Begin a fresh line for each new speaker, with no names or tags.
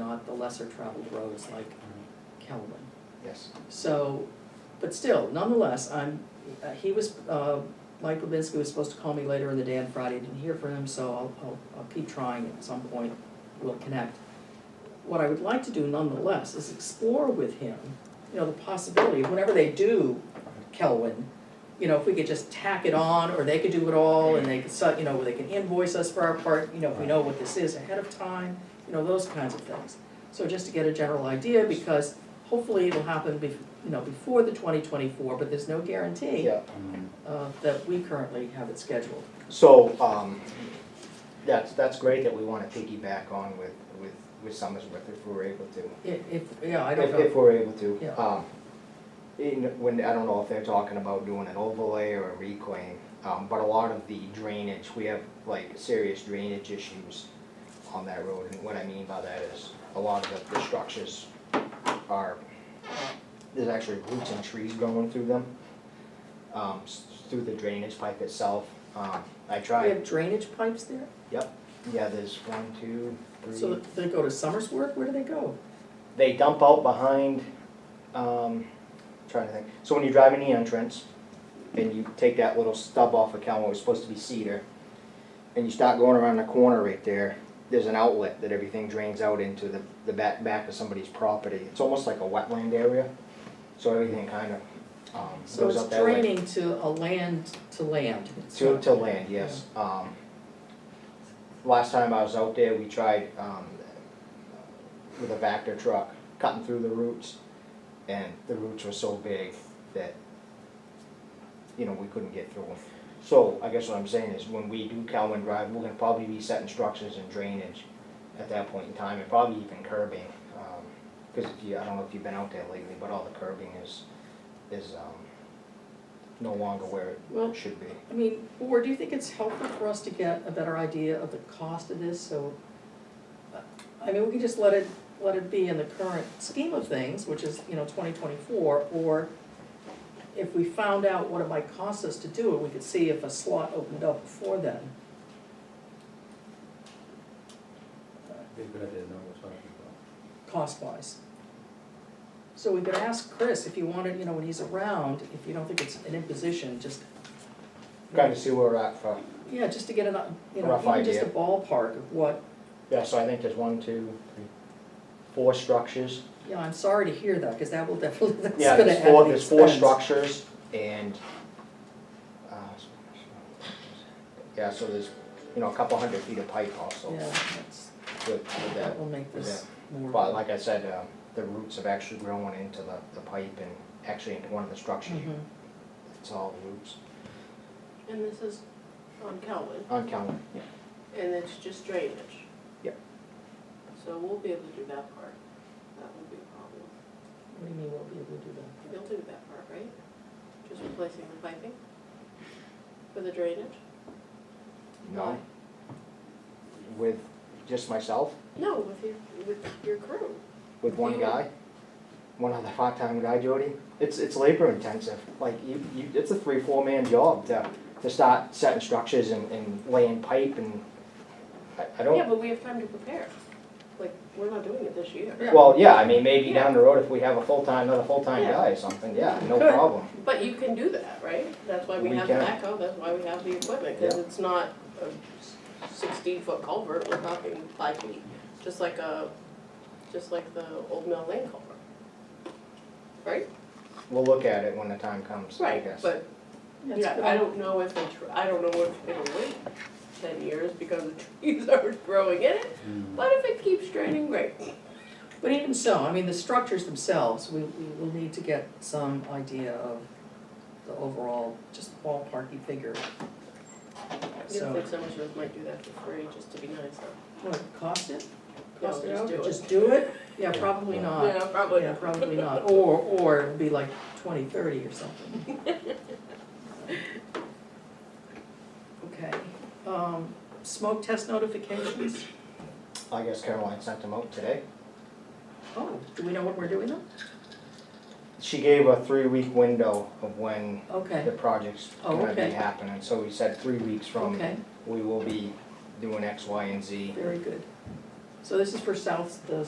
about the lesser traveled roads like Kelwin.
Yes.
So, but still, nonetheless, I'm, uh, he was, uh, Mike Lubinsky was supposed to call me later in the day on Friday, didn't hear from him, so I'll, I'll, I'll keep trying, at some point, we'll connect. What I would like to do nonetheless is explore with him, you know, the possibility, of whenever they do Kelwin, you know, if we could just tack it on, or they could do it all, and they could, su- you know, where they can invoice us for our part, you know, if we know what this is ahead of time, you know, those kinds of things. So just to get a general idea, because hopefully it'll happen bef- you know, before the twenty twenty-four, but there's no guarantee
Yeah,
uh, that we currently have it scheduled.
so, um, that's, that's great that we wanna piggyback on with, with, with Summersworth if we're able to.
If, if, yeah, I don't
If, if
know,
we're able to.
Yeah.
Um, in, when, I don't know if they're talking about doing an overlay or a reclaim, um, but a lot of the drainage, we have like serious drainage issues on that road, and what I mean by that is, a lot of the, the structures are, there's actually roots and trees growing through them, um, s- through the drainage pipe itself, um, I
we
tried,
have drainage pipes there,
yep, yeah, there's one, two, three.
so they go to Summersworth, where do they go?
they dump out behind, um, trying to think. So when you drive in the entrance and you take that little stub off of Calmo, it was supposed to be cedar, and you start going around the corner right there, there's an outlet that everything drains out into the, the back, back of somebody's property. It's almost like a wetland area, so everything kind of, um,
So
goes
it's
up that way.
draining to a land, to land. It's
To,
not-
to land, yes. Um, last time I was out there, we tried, um, with a Vector truck, cutting through the roots, and the roots were so big that, you know, we couldn't get through them. So I guess what I'm saying is, when we do Calvin Drive, we're gonna probably be setting structures and drainage at that point in time, and probably even curbing. um, Cause if you, I don't know if you've been out there lately, but all the curbing is, is, um, no longer where
Well,
it should be.
I mean, or do you think it's helpful for us to get a better idea of the cost of this, so? uh, I mean, we can just let it, let it be in the current scheme of things, which is, you know, twenty twenty-four, or if we found out what it might cost us to do it, we could see if a slot opened up before then.
Be a good idea to know what's happening.
cost-wise. So we could ask Chris if you wanted, you know, when he's around, if you don't think it's an imposition, just,
Kind of see where we're at for,
yeah, just to get an, uh, you know,
Rough
even just a
idea.
ballpark of what,
yeah, so I think there's one, two, three, four structures.
you know, I'm sorry to hear that, because that will definitely, that's
Yeah,
gonna
there's
add to
four,
the
there's four
expense.
structures and, uh, yeah, so there's, you know, a couple hundred feet of pipe also
Yeah,
with,
that's,
with that.
that will make this more.
But like I said, um, the roots have actually grown into the, the pipe and actually into one of the structures.
Mhm.
It's all roots,
And this is on Calvin,
uncounted.
and it's just drainage.
Yep.
So we'll be able to do that part, that won't be a problem.
What do you mean, we'll be able to do that?
You'll do that part, right? Just replacing the piping for the drainage?
No,
Why?
with just myself,
No, with your, with your crew.
with one
You-
guy, one other part-time guy, Jody. It's, it's labor intensive, like you, you, it's a three, four man job to, to start setting structures and, and laying pipe and, I, I
Yeah,
don't,
but we have time to prepare. Like, we're not doing it this year.
Yeah.
well, yeah, I mean, maybe
Yeah.
down the road if we have a full-time, another full-time
Yeah.
guy or something, yeah, no
Good.
problem.
But you can do that, right? That's why we
We
have the
can.
backhoe, that's why we have the equipment, because
Yeah.
it's not a sixteen-foot culvert, we're talking five feet, just like a, just like the Old Mill Lane culvert. Right?
We'll look at it when the time comes, I guess.
But,
That's
yeah,
good.
I don't know if the, tr- I don't know if it'll wait ten years because the trees are growing in it, but if it keeps draining, great.
But even so, I mean, the structures themselves, we, we will need to get some idea of the overall, just ballparky figure.
I just
So-
think some of us might do that for free, just to be nice though.
What, it cost it?
No,
Cost it
just
out?
do it.
Just do it? Yeah,
Yeah.
probably
Yeah.
not.
Yeah, probably.
Yeah, probably not, or, or it'd be like twenty thirty or something. Okay, um, smoke test notifications,
I guess Caroline sent them out today.
oh, do we know when we're doing them?
She gave a three-week window of when the
Okay,
project's
Oh,
gonna be
okay.
happening, so we said three weeks from,
okay,
we will be doing X, Y, and Z.
very good. So this is for South, the